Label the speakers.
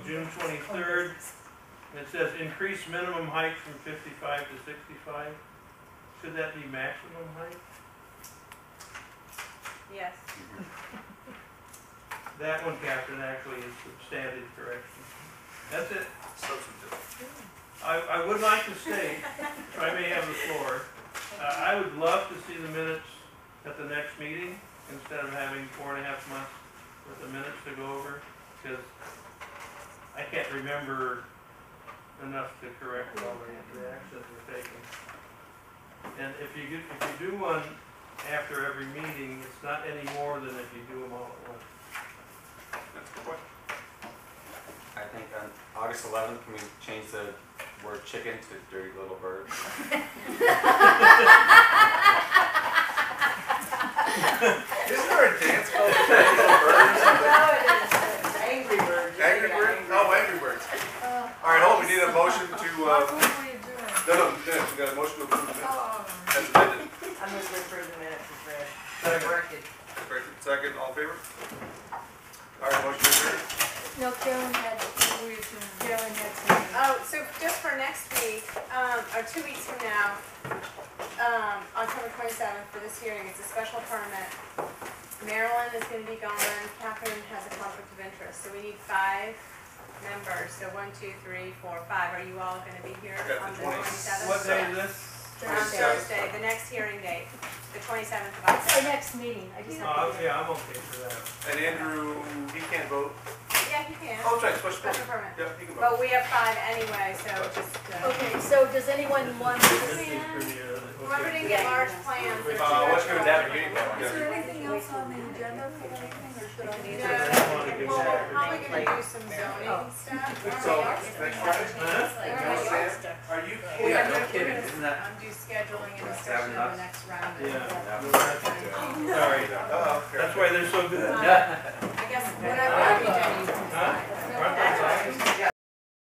Speaker 1: June twenty-third. It says increase minimum height from fifty-five to sixty-five. Should that be maximum height?
Speaker 2: Yes.
Speaker 1: That one, Captain, actually is substantive correction. That's it.
Speaker 3: Substantive.
Speaker 1: I, I would like to state, if I may have the floor, uh, I would love to see the minutes at the next meeting instead of having four and a half months worth of minutes to go over, because I can't remember enough to correct all the- the actions we're taking. And if you get, if you do one after every meeting, it's not any more than if you do them all at once.
Speaker 3: That's a good point.
Speaker 4: I think on August 11th, can we change the word chicken to dirty little bird?
Speaker 3: Isn't there a dance called Dirty Little Birds?
Speaker 2: Oh,
Speaker 5: Angry Bird.
Speaker 3: Angry Birds? No, Angry Birds. All right, hold, we need a motion to, uh, no, no, we didn't. we got a motion to approve the minutes. That's amended.
Speaker 5: I'm gonna refer the minutes as read.
Speaker 1: Second.
Speaker 5: Corrected.
Speaker 3: First and Second, all in favor? All right, motion to adjourn.
Speaker 6: No, Carolyn had, Carolyn had something.
Speaker 2: Oh, so just for next week, um, or two weeks from now, um, October twenty-seventh for this hearing, it's a special permit. Marilyn is gonna be gone, Catherine has a conflict of interest, so we need five members, so one, two, three, four, five, are you all gonna be here
Speaker 3: Okay,
Speaker 2: on
Speaker 3: the
Speaker 2: the
Speaker 3: 20
Speaker 2: twenty-seventh?
Speaker 1: What day is this?
Speaker 2: On
Speaker 3: 27th.
Speaker 2: Thursday, the next hearing date, the twenty-seventh of
Speaker 6: That's our
Speaker 2: October.
Speaker 6: next meeting, I just have
Speaker 1: Oh,
Speaker 6: to.
Speaker 1: yeah, I'm okay for that.
Speaker 3: And Andrew, he can't vote.
Speaker 2: Yeah, you can,
Speaker 3: Oh, that's right, special
Speaker 2: special
Speaker 3: vote.
Speaker 2: permit,
Speaker 3: Yeah, he can vote.
Speaker 2: but we have five anyway, so just, uh,
Speaker 6: Okay, so does anyone want
Speaker 1: This
Speaker 6: this?
Speaker 1: is pretty, uh, okay.
Speaker 2: whoever didn't get large plans. there's
Speaker 3: Uh, what's
Speaker 2: no-
Speaker 3: going down in Union?
Speaker 7: Is there anything else on the agenda for anything, or should I?
Speaker 2: No,
Speaker 7: leave it?
Speaker 2: well, we're probably gonna do some zoning stuff.
Speaker 3: So, next Friday?
Speaker 1: Huh?
Speaker 3: Are you
Speaker 4: Yeah, no kidding,
Speaker 2: We're
Speaker 4: isn't
Speaker 2: gonna
Speaker 4: that?
Speaker 2: Undo scheduling and discussion of
Speaker 4: Seven
Speaker 2: the
Speaker 4: bucks?
Speaker 2: next round.
Speaker 1: Yeah.
Speaker 4: No.
Speaker 1: Sorry,
Speaker 3: Uh-oh. Uh-huh.
Speaker 1: that's why they're so good.
Speaker 2: I guess whatever